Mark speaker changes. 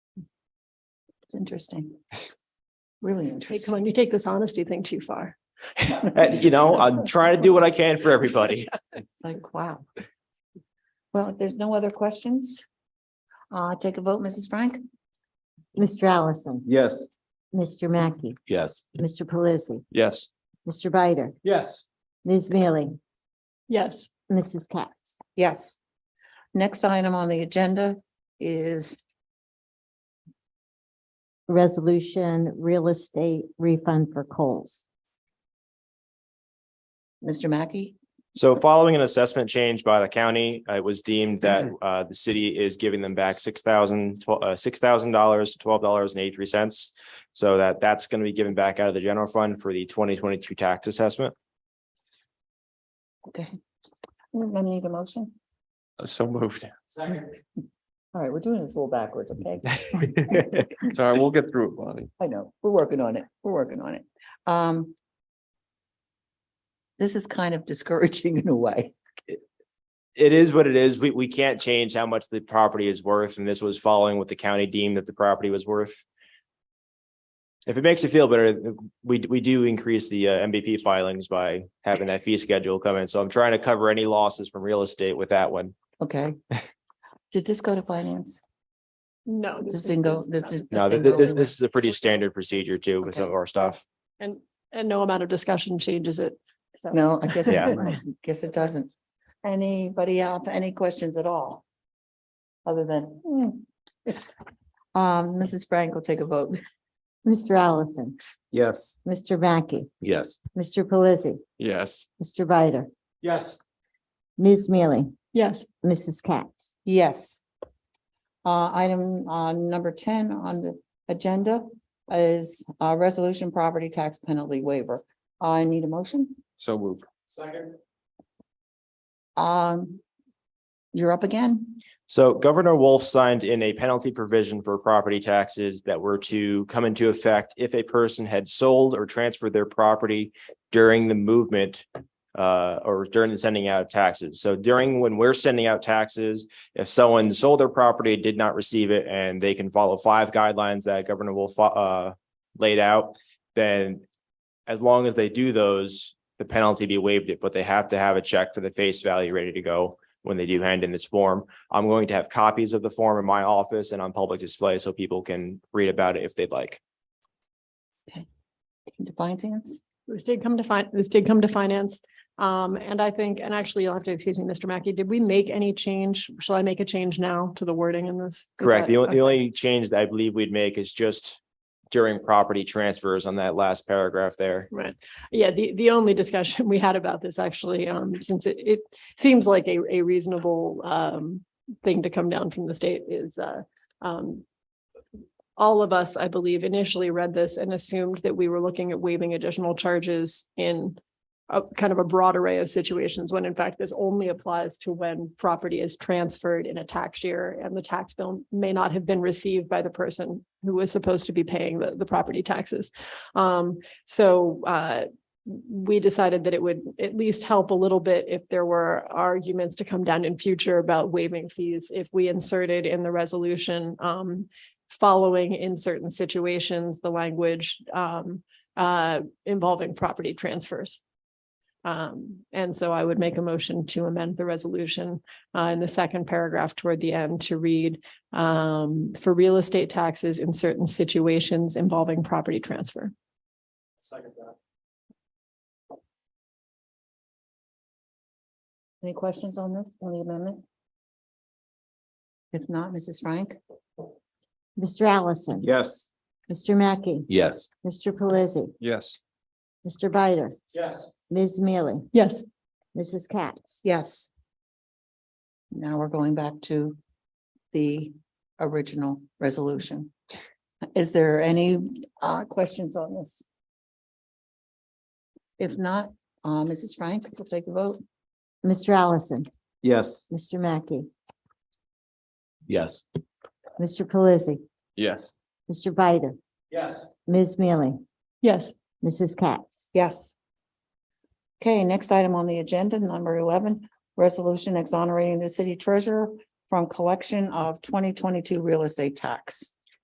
Speaker 1: It's interesting. Really
Speaker 2: Hey, come
Speaker 1: interesting.
Speaker 2: on, you take this honesty thing too far.
Speaker 3: You know, I'm trying to do what I can for everybody.
Speaker 1: It's like, wow. Well, if there's no other questions, uh, take a vote, Mrs. Frank?
Speaker 4: Mr. Allison,
Speaker 3: Yes.
Speaker 4: Mr. Mackey,
Speaker 3: Yes.
Speaker 4: Mr. Pelisi,
Speaker 3: Yes.
Speaker 4: Mr. Bider,
Speaker 3: Yes.
Speaker 4: Ms. Mealy,
Speaker 2: Yes,
Speaker 4: Mrs. Katz.
Speaker 1: Yes. Next item on the agenda is,
Speaker 4: Resolution Real Estate Refund for Coles.
Speaker 1: Mr. Mackey?
Speaker 3: So following an assessment change by the county, it was deemed that uh the city is giving them back six thousand, uh, six thousand dollars, twelve dollars and eighty-three cents. So that that's going to be given back out of the general fund for the twenty twenty-two tax assessment.
Speaker 1: Okay. I need a motion.
Speaker 3: So moved.
Speaker 1: All right, we're doing this a little backwards, okay?
Speaker 5: Sorry, we'll get through it, Bonnie.
Speaker 1: I know, we're working on it, we're working on it. Um. This is kind of discouraging in a way.
Speaker 3: It is what it is. We we can't change how much the property is worth, and this was following what the county deemed that the property was worth. If it makes you feel better, we we do increase the uh, MVP filings by having that fee schedule come in, so I'm trying to cover any losses from real estate with that one.
Speaker 1: Okay. Did this go to finance?
Speaker 2: no.
Speaker 1: This
Speaker 2: is-
Speaker 1: didn't go,
Speaker 2: is
Speaker 1: this
Speaker 2: not-
Speaker 1: is.
Speaker 3: No,
Speaker 1: didn't
Speaker 3: th-
Speaker 1: go
Speaker 3: this
Speaker 1: anywhere.
Speaker 3: this is a pretty standard procedure too with some of
Speaker 1: Okay.
Speaker 3: our stuff.
Speaker 2: And, and no amount of discussion changes it. So,
Speaker 1: No, I guess, it
Speaker 3: Yeah.
Speaker 1: didn't. I guess it doesn't. Anybody else, any questions at all? Other than, hmm. Um, Mrs. Frank will take a vote.
Speaker 4: Mr. Allison,
Speaker 5: Yes.
Speaker 4: Mr. Mackey,
Speaker 3: Yes.
Speaker 4: Mr. Pelisi,
Speaker 5: Yes.
Speaker 4: Mr. Bider,
Speaker 3: Yes.
Speaker 4: Ms. Mealy,
Speaker 2: Yes,
Speaker 4: Mrs. Katz.
Speaker 1: Yes. Uh, item, uh, number ten on the agenda is, uh, resolution property tax penalty waiver. I need a motion.
Speaker 5: So moved.
Speaker 3: Second.
Speaker 1: Um, you're up again.
Speaker 3: So Governor Wolf signed in a penalty provision for property taxes that were to come into effect if a person had sold or transferred their property during the movement uh, or during the sending out of taxes. So during when we're sending out taxes, if someone sold their property, did not receive it, and they can follow five guidelines that Governor Wolf uh, laid out, then as long as they do those, the penalty be waived it, but they have to have a check for the face value ready to go when they do hand in this form. I'm going to have copies of the form in my office and on public display so people can read about it if they'd like.
Speaker 1: To finance.
Speaker 2: this did come to fin, this did come to finance. Um, and I think, and actually you'll have to excuse me, Mr. Mackey, did we make any change? Shall I make a change now to the wording in this? Is
Speaker 3: Correct.
Speaker 2: that-
Speaker 3: The only,
Speaker 2: okay.
Speaker 3: the only change that I believe we'd make is just during property transfers on that last paragraph there.
Speaker 2: Right. Yeah, the, the only discussion we had about this actually, um, since it, it seems like a, a reasonable, um, thing to come down from the state is, uh, um, all of us, I believe, initially read this and assumed that we were looking at waiving additional charges in a kind of a broad array of situations, when in fact this only applies to when property is transferred in a tax year and the tax bill may not have been received by the person who was supposed to be paying the, the property taxes. Um, so uh, we decided that it would at least help a little bit if there were arguments to come down in future about waiving fees. If we inserted in the resolution, um, following in certain situations, the language um, uh, involving property transfers. Um, and so I would make a motion to amend the resolution uh, in the second paragraph toward the end to read um, for real estate taxes in certain situations involving property transfer.
Speaker 1: Any questions on this, on the amendment? If not, Mrs. Frank?
Speaker 4: Mr. Allison.
Speaker 5: Yes.
Speaker 4: Mr. Mackey,
Speaker 5: Yes.
Speaker 4: Mr. Pelisi,
Speaker 5: Yes.
Speaker 4: Mr. Bider,
Speaker 3: Yes.
Speaker 4: Ms. Mealy,
Speaker 2: Yes,
Speaker 4: Mrs. Katz.
Speaker 1: Yes. Now we're going back to the original resolution. Is there any uh questions on this? If not, uh Mrs. Frank will take a vote.
Speaker 4: Mr. Allison,
Speaker 5: Yes.
Speaker 4: Mr. Mackey,
Speaker 5: Yes.
Speaker 4: Mr. Pelisi,
Speaker 5: Yes.
Speaker 4: Mr. Bider,
Speaker 3: Yes.
Speaker 4: Ms. Mealy,
Speaker 2: yes,
Speaker 4: Mrs. Katz.
Speaker 1: Yes. Okay, next item on the agenda, number eleven, resolution exonerating the city treasurer from collection of twenty twenty-two real estate tax.